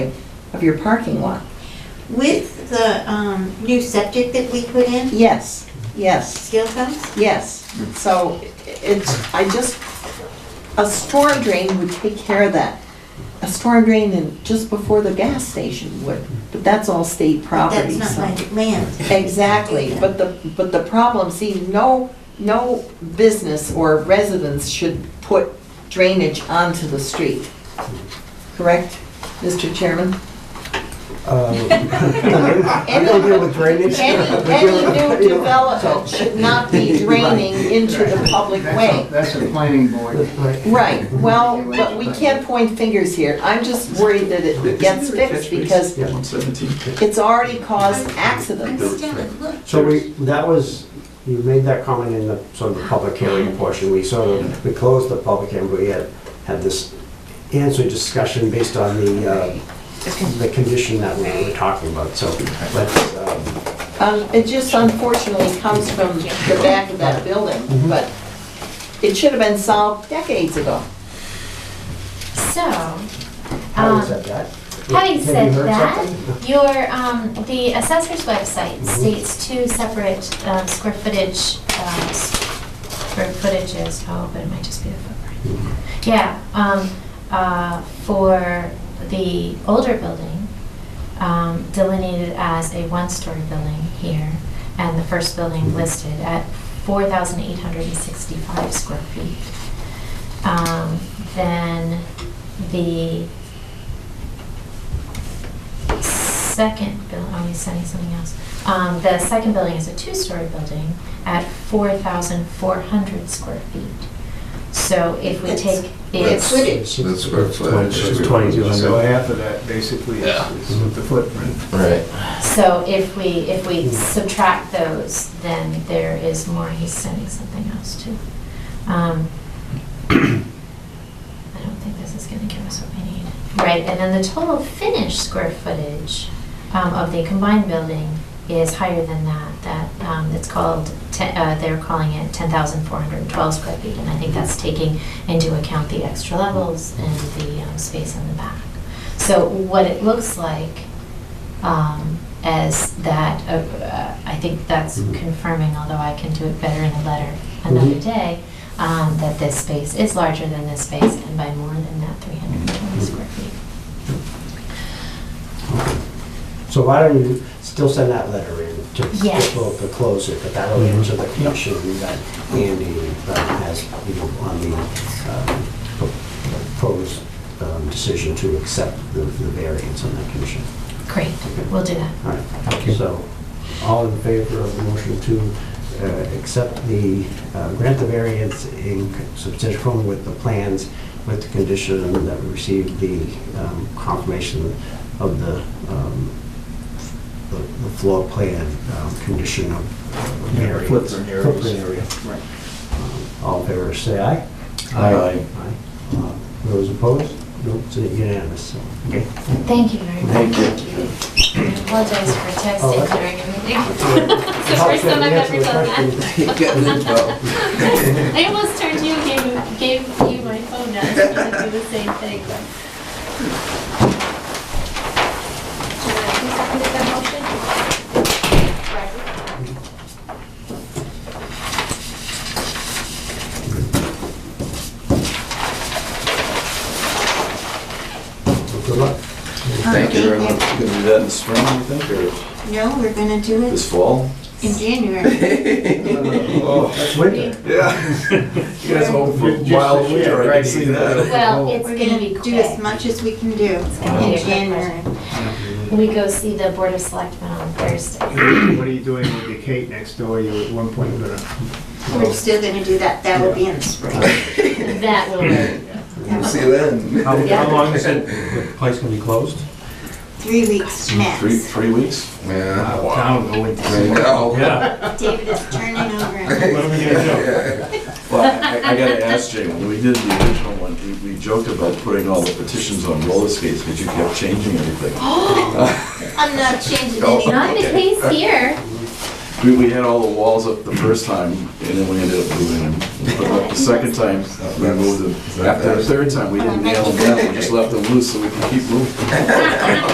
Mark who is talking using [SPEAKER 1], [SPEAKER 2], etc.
[SPEAKER 1] of your parking lot.
[SPEAKER 2] With the um, new septic that we put in,
[SPEAKER 1] Yes, yes,
[SPEAKER 2] still comes?
[SPEAKER 1] yes. So it's, I just, a storm drain would take care of that. A storm drain and just before the gas station would, but that's all state property,
[SPEAKER 2] That's
[SPEAKER 1] so.
[SPEAKER 2] not my land.
[SPEAKER 1] Exactly, but the, but the problem, see, no, no business or residents should put drainage onto the street. Correct, Mr. Chairman?
[SPEAKER 3] Uh, I don't deal with drainage.
[SPEAKER 1] Any, any new development should not be draining into the public way.
[SPEAKER 4] That's a planning board.
[SPEAKER 1] Right, well, but we can't point fingers here. I'm just worried that it gets fixed because
[SPEAKER 5] One seventeen.
[SPEAKER 1] it's already caused
[SPEAKER 2] I'm
[SPEAKER 1] accidents.
[SPEAKER 2] still at look.
[SPEAKER 3] So we, that was, you made that comment in the, sort of the public hearing portion, we sort of, we closed the public hearing, but we had, had this answer discussion based on the, uh, the condition that we were talking about, so let's, um,
[SPEAKER 1] Um, it just unfortunately comes from the back of that building, but it should have been solved decades ago.
[SPEAKER 6] So,
[SPEAKER 3] how
[SPEAKER 6] um,
[SPEAKER 3] is that that?
[SPEAKER 6] having
[SPEAKER 3] Have you
[SPEAKER 6] said
[SPEAKER 3] heard
[SPEAKER 6] that,
[SPEAKER 3] something? Mm-hmm.
[SPEAKER 6] your, um, the assessor's website states two separate, um, square footage, um, s- square footages, oh, but it might just be the footprint. Yeah, um, uh, for the older building, um, delineated as a one-story building here, and the first
[SPEAKER 3] Mm-hmm.
[SPEAKER 6] building listed at four thousand eight hundred and sixty-five square feet. Um, then the second building, oh, he's sending something else. Um, the second building is a two-story building at four thousand four hundred square feet. So if we
[SPEAKER 1] It's-
[SPEAKER 6] take
[SPEAKER 1] it's
[SPEAKER 6] its
[SPEAKER 1] footage.
[SPEAKER 5] That's square footage.
[SPEAKER 3] It's twenty-two
[SPEAKER 4] So
[SPEAKER 3] hundred.
[SPEAKER 4] half of that basically is is the footprint.
[SPEAKER 5] Right.
[SPEAKER 6] So if we, if we subtract those, then there is more, he's sending something else too. Um, I don't think this is gonna give us what we need. Right, and then the total finished square footage um, of the combined building is higher than that, that, um, it's called, te- uh, they're calling it ten thousand four hundred and twelve square feet, and I think that's taking into account the extra levels and the um, space in the back. So what it looks like um, as that, uh, uh, I think that's
[SPEAKER 3] Mhm.
[SPEAKER 6] confirming, although I can do it better in a letter another
[SPEAKER 3] Mhm.
[SPEAKER 6] day, um, that this space is larger than this space and by more than that 320 square feet.
[SPEAKER 3] So why don't you still send that letter in to,
[SPEAKER 6] Yes.
[SPEAKER 3] to clo- to close it, but that'll answer the question that Andy uh, has, you know, on the um, pro- proposed um, decision to accept the the variance on that condition.
[SPEAKER 6] Great, we'll do that.
[SPEAKER 3] All right, so, all in favor of the motion to uh, accept the, uh, grant the variance in substantial conformity with the plans with the condition that we receive the um, confirmation of the, um, the the floor plan um, condition of
[SPEAKER 4] Yeah,
[SPEAKER 3] variance.
[SPEAKER 4] footprint areas.
[SPEAKER 3] Footprint area.
[SPEAKER 4] Right.
[SPEAKER 3] Um, All in favor, say aye.
[SPEAKER 4] Aye.
[SPEAKER 3] Aye. Uh, Those opposed? Nope, it's unanimous, so, okay.
[SPEAKER 6] Thank you very much. I apologize for
[SPEAKER 3] Oh,
[SPEAKER 6] texting
[SPEAKER 3] that's-
[SPEAKER 6] during a meeting. It's the first time I've ever done that.
[SPEAKER 5] Getting in trouble.
[SPEAKER 6] I almost turned you, gave, gave you my phone now, so I could do the same thing. but-
[SPEAKER 3] Good luck.
[SPEAKER 5] Thank you very much. You're gonna do that in the spring, you think, or
[SPEAKER 2] No, we're gonna do it
[SPEAKER 5] this fall?
[SPEAKER 2] in January.
[SPEAKER 3] Oh.
[SPEAKER 4] That's winter.
[SPEAKER 5] Yeah. You guys hope for
[SPEAKER 4] Just-
[SPEAKER 5] wild
[SPEAKER 4] just-
[SPEAKER 5] winter, I
[SPEAKER 4] yeah,
[SPEAKER 5] can see
[SPEAKER 4] right.
[SPEAKER 5] that.
[SPEAKER 6] Well, it's
[SPEAKER 2] We're
[SPEAKER 6] gonna be
[SPEAKER 2] gonna
[SPEAKER 6] quick.
[SPEAKER 2] do as much as we can do
[SPEAKER 6] gonna be
[SPEAKER 2] in
[SPEAKER 6] quick.
[SPEAKER 2] January.
[SPEAKER 6] We go see the Board of Selectmen on Thursday.
[SPEAKER 4] What are you doing with the Kate next door? You're at one point gonna.
[SPEAKER 2] We're still gonna do that, that will be in the spring.
[SPEAKER 6] That will work.
[SPEAKER 5] We'll see you then.
[SPEAKER 7] How,
[SPEAKER 6] Yeah.
[SPEAKER 7] how long is it, the place gonna be closed?
[SPEAKER 2] Three weeks
[SPEAKER 5] Three,
[SPEAKER 2] max.
[SPEAKER 5] three weeks? Yeah.
[SPEAKER 4] uh, Town going.
[SPEAKER 7] Yeah.
[SPEAKER 2] David is turning over.
[SPEAKER 7] What are we gonna
[SPEAKER 5] Well, I, I gotta ask Jay, when we did the original one, we, we joked about putting all the petitions on roller skates, because you kept changing everything.
[SPEAKER 2] I'm not changing
[SPEAKER 5] Oh.
[SPEAKER 2] anything.
[SPEAKER 6] Not the case here.
[SPEAKER 5] We, we had all the walls up the first time, and then we ended up moving them. But like the second time, we moved them. After the third time, we didn't nail them down, we just left them loose so we could keep moving.